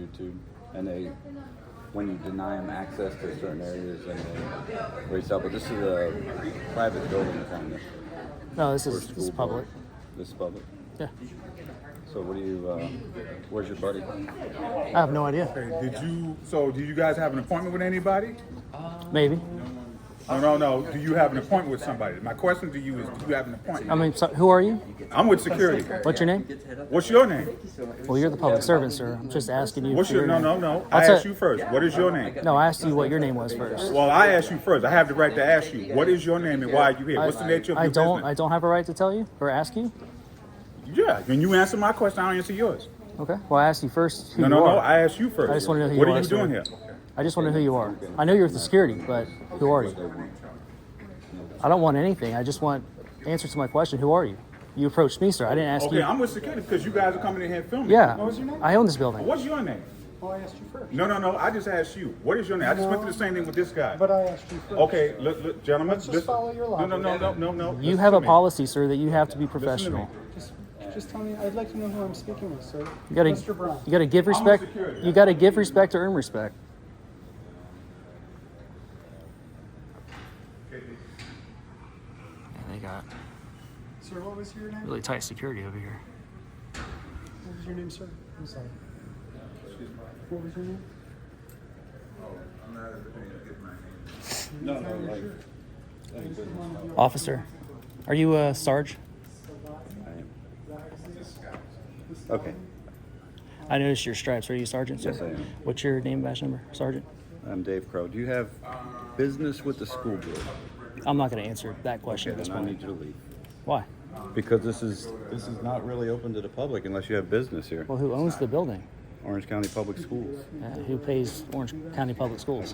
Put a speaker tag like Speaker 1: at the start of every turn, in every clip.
Speaker 1: YouTube, and they when you deny them access to certain areas and they raise up. But this is a private building kind of.
Speaker 2: No, this
Speaker 1: for
Speaker 2: is
Speaker 1: school
Speaker 2: this is
Speaker 1: board.
Speaker 2: public.
Speaker 1: This is public.
Speaker 2: Yeah,
Speaker 1: So what do you? Uh, where's your buddy?
Speaker 2: I have no idea.
Speaker 3: Hey, did you? So, do you guys have an appointment with anybody?
Speaker 2: Maybe.
Speaker 3: No, no, no. Do you have an appointment with somebody? My question to you is, do you have an
Speaker 2: I
Speaker 3: appointment?
Speaker 2: mean, so, who are you?
Speaker 3: I'm with security.
Speaker 2: What's your name?
Speaker 3: What's your name?
Speaker 2: Well, you're the public servant, sir. I'm just asking you.
Speaker 3: What's
Speaker 2: for
Speaker 3: your? No,
Speaker 2: name.
Speaker 3: no, no. I
Speaker 2: That's
Speaker 3: asked
Speaker 2: it.
Speaker 3: you first. What is your name?
Speaker 2: No, I asked you what your name was first.
Speaker 3: Well, I asked you first. I have the right to ask you. What is your name and why are you here? What's the nature of
Speaker 2: I
Speaker 3: your
Speaker 2: don't. I
Speaker 3: business?
Speaker 2: don't have a right to tell you or ask you.
Speaker 3: Yeah. When you answer my question, I'll answer yours.
Speaker 2: Okay. Well, I asked you first who
Speaker 3: No,
Speaker 2: you
Speaker 3: no,
Speaker 2: are.
Speaker 3: no. I asked you first.
Speaker 2: I just wanna know who
Speaker 3: What
Speaker 2: you
Speaker 3: are
Speaker 2: are,
Speaker 3: you doing
Speaker 2: sir.
Speaker 3: here?
Speaker 2: I just want to know who you are. I know you're with the security, but who are you? I don't want anything. I just want answers to my question. Who are you? You approached me, sir. I didn't ask
Speaker 3: Okay,
Speaker 2: you.
Speaker 3: I'm with security because you guys are coming in here filming.
Speaker 2: yeah,
Speaker 3: What was your name?
Speaker 2: I own this building.
Speaker 3: What's your name?
Speaker 4: Well, Oh, I asked you first.
Speaker 3: No, no, no. I just asked you. What is your name? I just went through the same thing with this guy.
Speaker 4: But I asked you first.
Speaker 3: Okay, look, look, gentlemen.
Speaker 4: Let's just
Speaker 3: listen.
Speaker 4: follow your
Speaker 3: No, no, no, no, no, no.
Speaker 2: You have a
Speaker 3: policy.
Speaker 2: policy, sir, that you have to be
Speaker 3: to me.
Speaker 2: professional.
Speaker 4: Just, just tell me, I'd like to know who I'm speaking with, sir.
Speaker 2: You gotta,
Speaker 4: Mr. Brown.
Speaker 2: you gotta give respect.
Speaker 3: security.
Speaker 2: You gotta give respect to earn respect. And they got
Speaker 4: Sir, what was your name?
Speaker 2: really tight security over here.
Speaker 4: What was your name, sir? I'm sorry. What was your name?
Speaker 1: No, no, like,
Speaker 2: Officer, are you a Sarge?
Speaker 1: I am. Okay.
Speaker 2: I noticed your stripes. Are you Sergeant? Sir?
Speaker 1: Yes, I am.
Speaker 2: What's your name, badge number, Sergeant?
Speaker 1: I'm Dave Crow. Do you have business with the school board?
Speaker 2: I'm not gonna answer that question
Speaker 1: Okay,
Speaker 2: at this
Speaker 1: then I
Speaker 2: point.
Speaker 1: need you to leave.
Speaker 2: Why?
Speaker 1: Because this is, this is not really open to the public unless you have business here.
Speaker 2: Well, who owns the building?
Speaker 1: Orange County Public Schools.
Speaker 2: Uh, who pays Orange County Public Schools?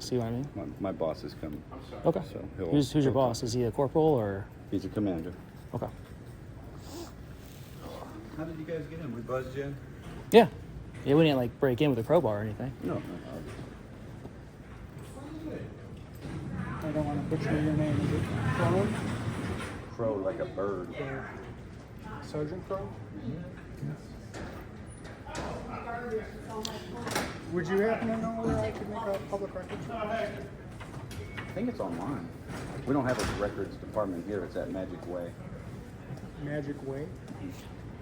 Speaker 2: See what I mean?
Speaker 1: My, my boss is coming.
Speaker 2: Okay.
Speaker 1: So he'll-
Speaker 2: Who's, who's your
Speaker 1: he'll-
Speaker 2: boss? Is he a corporal or?
Speaker 1: He's a commander.
Speaker 2: Okay.
Speaker 1: How did you guys get in? We buzzed you?
Speaker 2: Yeah. Yeah, we didn't like break in with a crowbar or anything.
Speaker 1: No.
Speaker 4: I don't want to butcher your name. Is it Crowe?
Speaker 1: Crow like a bird.
Speaker 4: Sergeant Crowe? Would you happen to know where I could make a public record? check?
Speaker 1: I think it's online. We don't have a records department here. It's at Magic Way.
Speaker 4: Magic Way?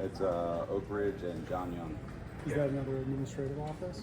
Speaker 1: It's uh, Oak Ridge and John Young.
Speaker 4: Is that another administrative office?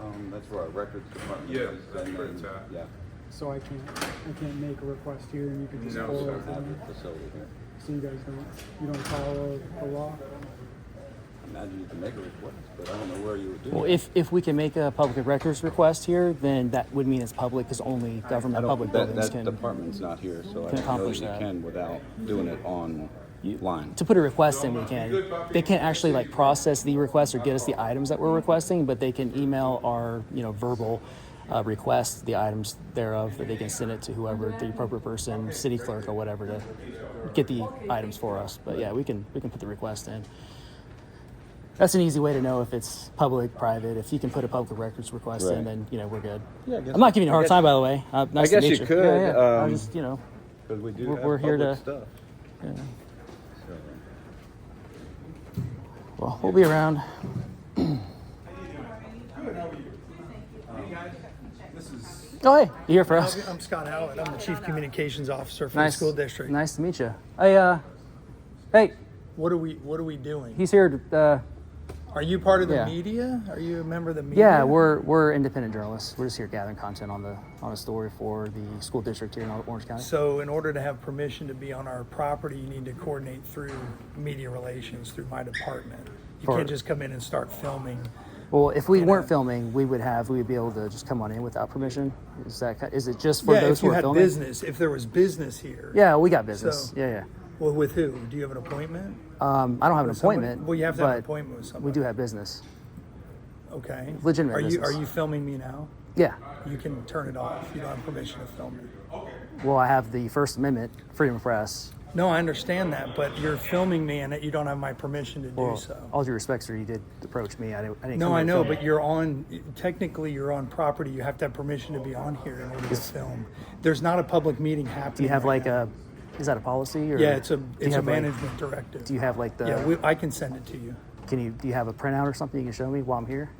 Speaker 1: Um, that's where our records department
Speaker 3: Yeah,
Speaker 1: is.
Speaker 3: that's
Speaker 1: and
Speaker 3: where
Speaker 1: then-
Speaker 3: it's at.
Speaker 1: Yeah,
Speaker 4: So I can't, I can't make a request here and you could just
Speaker 3: No,
Speaker 4: pull
Speaker 3: sir.
Speaker 4: it.
Speaker 1: we have
Speaker 4: from-
Speaker 1: a facility here.
Speaker 4: So you guys don't, you don't follow the law?
Speaker 1: I Imagine you can make a request, but I don't know where you would do
Speaker 2: Well,
Speaker 1: that.
Speaker 2: if, if we can make a public records request here, then that would mean it's public because only
Speaker 1: I
Speaker 2: government
Speaker 1: don't-
Speaker 2: public
Speaker 1: that,
Speaker 2: buildings
Speaker 1: that
Speaker 2: can.
Speaker 1: department's not here, so I
Speaker 2: can
Speaker 1: don't know
Speaker 2: accomplish
Speaker 1: that you
Speaker 2: that.
Speaker 1: can without doing it online.
Speaker 2: To put a request in, we can. They can't actually like process the request or get us the items that we're requesting, but they can email our you know verbal uh, request the items thereof that they can send it to whoever the appropriate person, city clerk or whatever to get the items for us. But yeah, we can we can put the request in. That's an easy way to know if it's public, private. If you can put a public records request in,
Speaker 1: Right.
Speaker 2: then you know we're good.
Speaker 1: Yeah, I guess-
Speaker 2: I'm not giving you a
Speaker 1: I
Speaker 2: hard
Speaker 1: guess-
Speaker 2: time, by the way. Uh, nice
Speaker 1: guess
Speaker 2: to meet
Speaker 1: you
Speaker 2: you.
Speaker 1: could,
Speaker 2: Yeah, yeah. I
Speaker 1: um,
Speaker 2: just you know.
Speaker 1: Because we do
Speaker 2: We're-
Speaker 1: have
Speaker 2: we're here
Speaker 1: public
Speaker 2: to-
Speaker 1: stuff. So,
Speaker 2: Well, we'll be around. Oh, hey, you here for us?
Speaker 5: I'm Scott Howard. I'm the Chief Communications Officer for
Speaker 2: Nice
Speaker 5: the school district.
Speaker 2: Nice to meet you. Hey, uh, hey,
Speaker 5: What are we What are we doing?
Speaker 2: he's here. To, uh,
Speaker 5: Are you part of the
Speaker 2: Yeah.
Speaker 5: media? Are you a member of the media?
Speaker 2: yeah, we're we're independent journalists. We're just here gathering content on the on a story for the school district here in Orange County.
Speaker 5: So, in order to have permission to be on our property, you need to coordinate through media relations through my department. You
Speaker 2: For-
Speaker 5: can't just come in and start filming.
Speaker 2: Well, if we weren't filming, we would have we would be able to just come on in without permission. Is that ki- is it just for
Speaker 5: yeah,
Speaker 2: those
Speaker 5: if you
Speaker 2: who are
Speaker 5: had
Speaker 2: filming?
Speaker 5: business, if there was business here.
Speaker 2: Yeah, we got business.
Speaker 5: So-
Speaker 2: yeah,
Speaker 5: Well, with who? Do you have an appointment?
Speaker 2: yeah. Um, I don't have an
Speaker 5: Somebody-
Speaker 2: appointment.
Speaker 5: Well, you have to have an
Speaker 2: but
Speaker 5: appointment with somebody.
Speaker 2: We do have business.
Speaker 5: Okay.
Speaker 2: legitimate
Speaker 5: Are you
Speaker 2: business.
Speaker 5: Are you filming me now?
Speaker 2: Yeah.
Speaker 5: You can turn it off. You don't have permission to film me.
Speaker 2: Well, I have the First Amendment, freedom of press.
Speaker 5: No, I understand that, but you're filming me and that you don't have my permission to do
Speaker 2: Well,
Speaker 5: so.
Speaker 2: all due respect, sir, you did approach me. I didn't. I didn't
Speaker 5: Oh. No,
Speaker 2: come
Speaker 5: I
Speaker 2: to
Speaker 5: know,
Speaker 2: film.
Speaker 5: but you're on, technically, you're on property. You have to have permission to be on here in order to film. There's not a public meeting happening.
Speaker 2: do you have
Speaker 5: right
Speaker 2: like
Speaker 5: now.
Speaker 2: a? Is that a policy or?
Speaker 5: Yeah, it's a,
Speaker 2: do you
Speaker 5: it's a
Speaker 2: have, like-
Speaker 5: management directive.
Speaker 2: do you have like the?
Speaker 5: Yeah, we, I can send it to you.
Speaker 2: can you do you have a printout or something you can show me while I'm here?